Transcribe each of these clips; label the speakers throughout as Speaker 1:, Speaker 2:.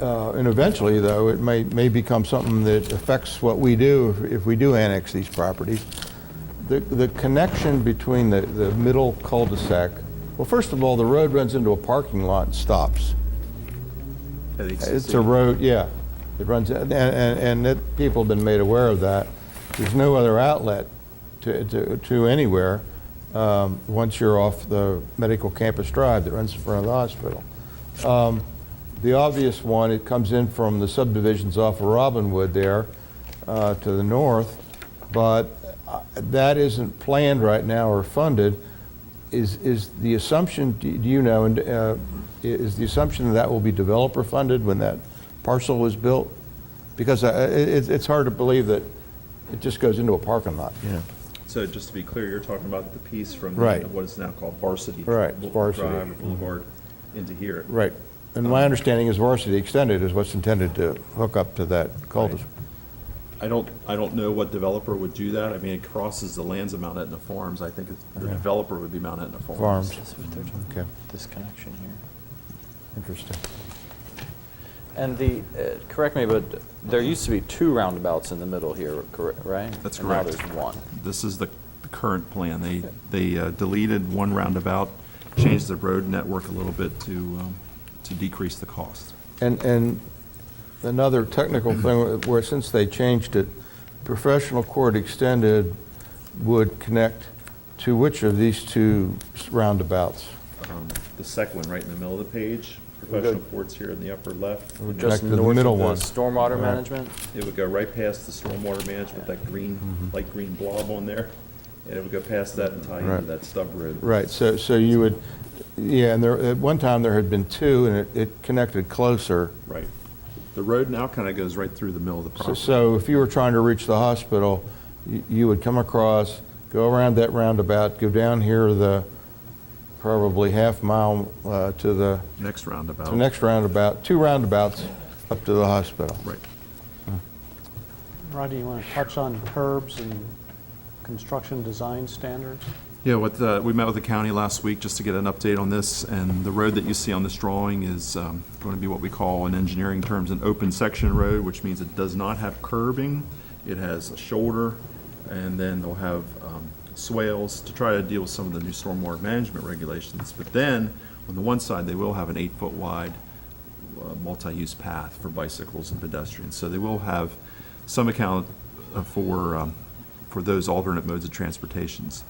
Speaker 1: uh, and eventually, though, it may, may become something that affects what we do if- if we do annex these properties. The, the connection between the, the middle cul-de-sac, well, first of all, the road runs into a parking lot and stops. It's a road, yeah. It runs, and, and, and it, people have been made aware of that. There's no other outlet to, to, to anywhere, um, once you're off the medical campus drive that runs in front of the hospital. Um, the obvious one, it comes in from the subdivisions off of Robinwood there, uh, to the north, but uh, that isn't planned right now or funded. Is, is the assumption, do do you know, and uh, is the assumption that will be developer funded when that parcel was built? Because uh, it, it's- it's hard to believe that it just goes into a parking lot, you know?
Speaker 2: So just to be clear, you're talking about the piece from
Speaker 1: Right.
Speaker 2: what is now called Varsity.
Speaker 1: Right,
Speaker 2: Boul-
Speaker 1: Varsity.
Speaker 2: Drive or Boulevard into here.
Speaker 1: Right. And my understanding is Varsity Extended is what's intended to hook up to that cul-de-sac.
Speaker 2: I don't, I don't know what developer would do that. I mean, it crosses the lands of Mount Etna Farms. I think it's- the
Speaker 1: Yeah.
Speaker 2: developer would be Mount Etna Farms.
Speaker 1: Farms.
Speaker 3: This is what they're doing.
Speaker 1: Okay,
Speaker 3: This connection here.
Speaker 1: interesting.
Speaker 3: And the, uh, correct me, but there used to be two roundabouts in the middle here, correct, right?
Speaker 2: That's
Speaker 3: And
Speaker 2: correct.
Speaker 3: now there's one.
Speaker 2: This is the the current plan. They, they uh, deleted one roundabout, changed the road network a little bit to, um, to decrease the cost.
Speaker 1: And, and another technical thing, where since they changed it, professional court extended would connect to which of these two roundabouts?
Speaker 2: Um, The second one, right in the middle of the page,
Speaker 3: go-
Speaker 2: professional courts here in the upper left.
Speaker 1: We'll
Speaker 2: and
Speaker 1: Connect
Speaker 3: Just
Speaker 1: to the
Speaker 3: north
Speaker 1: middle
Speaker 3: of the
Speaker 1: one.
Speaker 3: stormwater
Speaker 1: Right.
Speaker 3: management?
Speaker 2: It would go right past the stormwater management, that
Speaker 1: Mm-hmm.
Speaker 2: green, light green blob on there, and it would go past that and tie into
Speaker 1: Right.
Speaker 2: that stub road.
Speaker 1: Right, so, so you would, yeah, and there, at one time, there had been two, and it, it connected closer.
Speaker 2: Right. The road now kind of goes right through the middle of the
Speaker 1: So-
Speaker 2: property.
Speaker 1: So if you were trying to reach the hospital, y- you would come across, go around that roundabout, go down here the, probably half mile uh, to the,
Speaker 2: Next roundabout.
Speaker 1: to the next roundabout, two roundabouts up to the hospital.
Speaker 2: Right.
Speaker 4: Rodney, you want to touch on curbs and construction design standards?
Speaker 2: Yeah, what, uh, we met with the county last week just to get an update on this, and the road that you see on this drawing is um, going to be what we call in engineering terms an open section road, which means it does not have curbing, it has a shoulder, and then they'll have um, swales to try to deal with some of the new stormwater management regulations. But then, on the one side, they will have an eight-foot wide uh, multi-use path for bicycles and pedestrians. So they will have some account uh, for, um, for those alternate modes of transportations.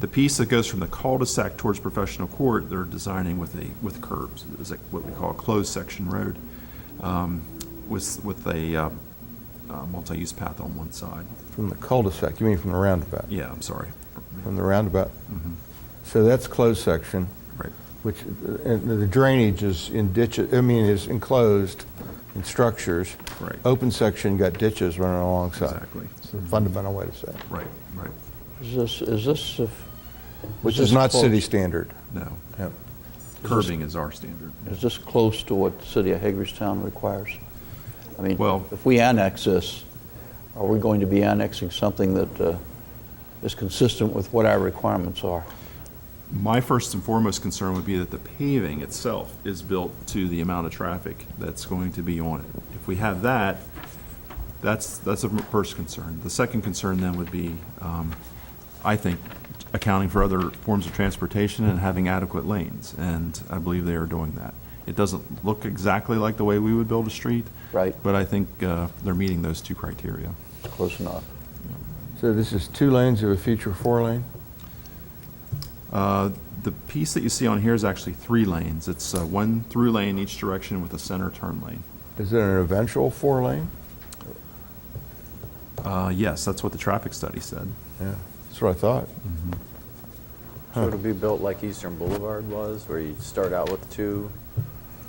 Speaker 2: The piece that goes from the cul-de-sac towards professional court, they're designing with a, with curbs, is like what we call a closed section road, um, with, with a uh, uh, multi-use path on one side.
Speaker 1: From the cul-de-sac, you mean from the roundabout?
Speaker 2: Yeah, Mm-hmm. I'm sorry.
Speaker 1: From the roundabout? So that's closed section,
Speaker 2: Right.
Speaker 1: which, uh, and the drainage is in ditches, I mean, is enclosed in structures.
Speaker 2: Right.
Speaker 1: Open section got ditches running alongside.
Speaker 2: Exactly.
Speaker 1: It's a fundamental way to say it.
Speaker 2: Right, right.
Speaker 5: Is this, is this, if-
Speaker 1: Which
Speaker 5: This
Speaker 1: is not
Speaker 5: close.
Speaker 1: city standard.
Speaker 2: No,
Speaker 1: Yep.
Speaker 2: curbing is our standard.
Speaker 5: is this close to what the city of Hagerstown requires? I mean,
Speaker 2: Well-
Speaker 5: if we annex this, are we going to be annexing something that uh, is consistent with what our requirements are?
Speaker 2: My first and foremost concern would be that the paving itself is built to the amount of traffic that's going to be on it. If we have that, that's, that's the first concern. The second concern then would be, um, I think, accounting for other forms of transportation and having adequate lanes, and I believe they are doing that. It doesn't look exactly like the way we would build a street.
Speaker 5: Right.
Speaker 2: But I think uh, they're meeting those two criteria.
Speaker 5: Close enough.
Speaker 1: So this is two lanes of a future four lane?
Speaker 2: Uh, The piece that you see on here is actually three lanes. It's uh, one through lane each direction with a center turn lane.
Speaker 1: Is it an eventual four lane?
Speaker 2: Uh, Yes, that's what the traffic study said.
Speaker 1: Yeah, that's what I thought.
Speaker 3: So it'll be built like Eastern Boulevard was, where you start out with two,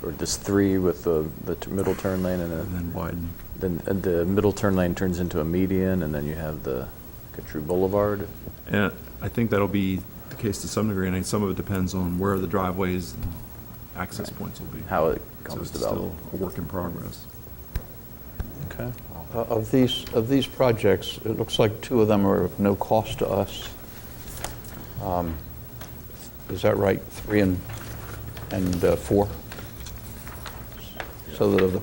Speaker 3: or just three with the, the t- middle turn lane, and
Speaker 2: And
Speaker 3: then-
Speaker 2: then widen.
Speaker 3: then uh, the middle turn lane turns into a median, and then you have the Carew Boulevard.
Speaker 2: And I think that'll be the case to some degree, and some of it depends on where the driveways and access points will be.
Speaker 3: How it
Speaker 2: So
Speaker 3: comes
Speaker 2: it's
Speaker 3: about.
Speaker 2: still a work in progress.
Speaker 3: Okay.
Speaker 5: Uh, Of these, of these projects, it looks like two of them are of no cost to us. Um, Is that right? Three and, and uh, four? So that of the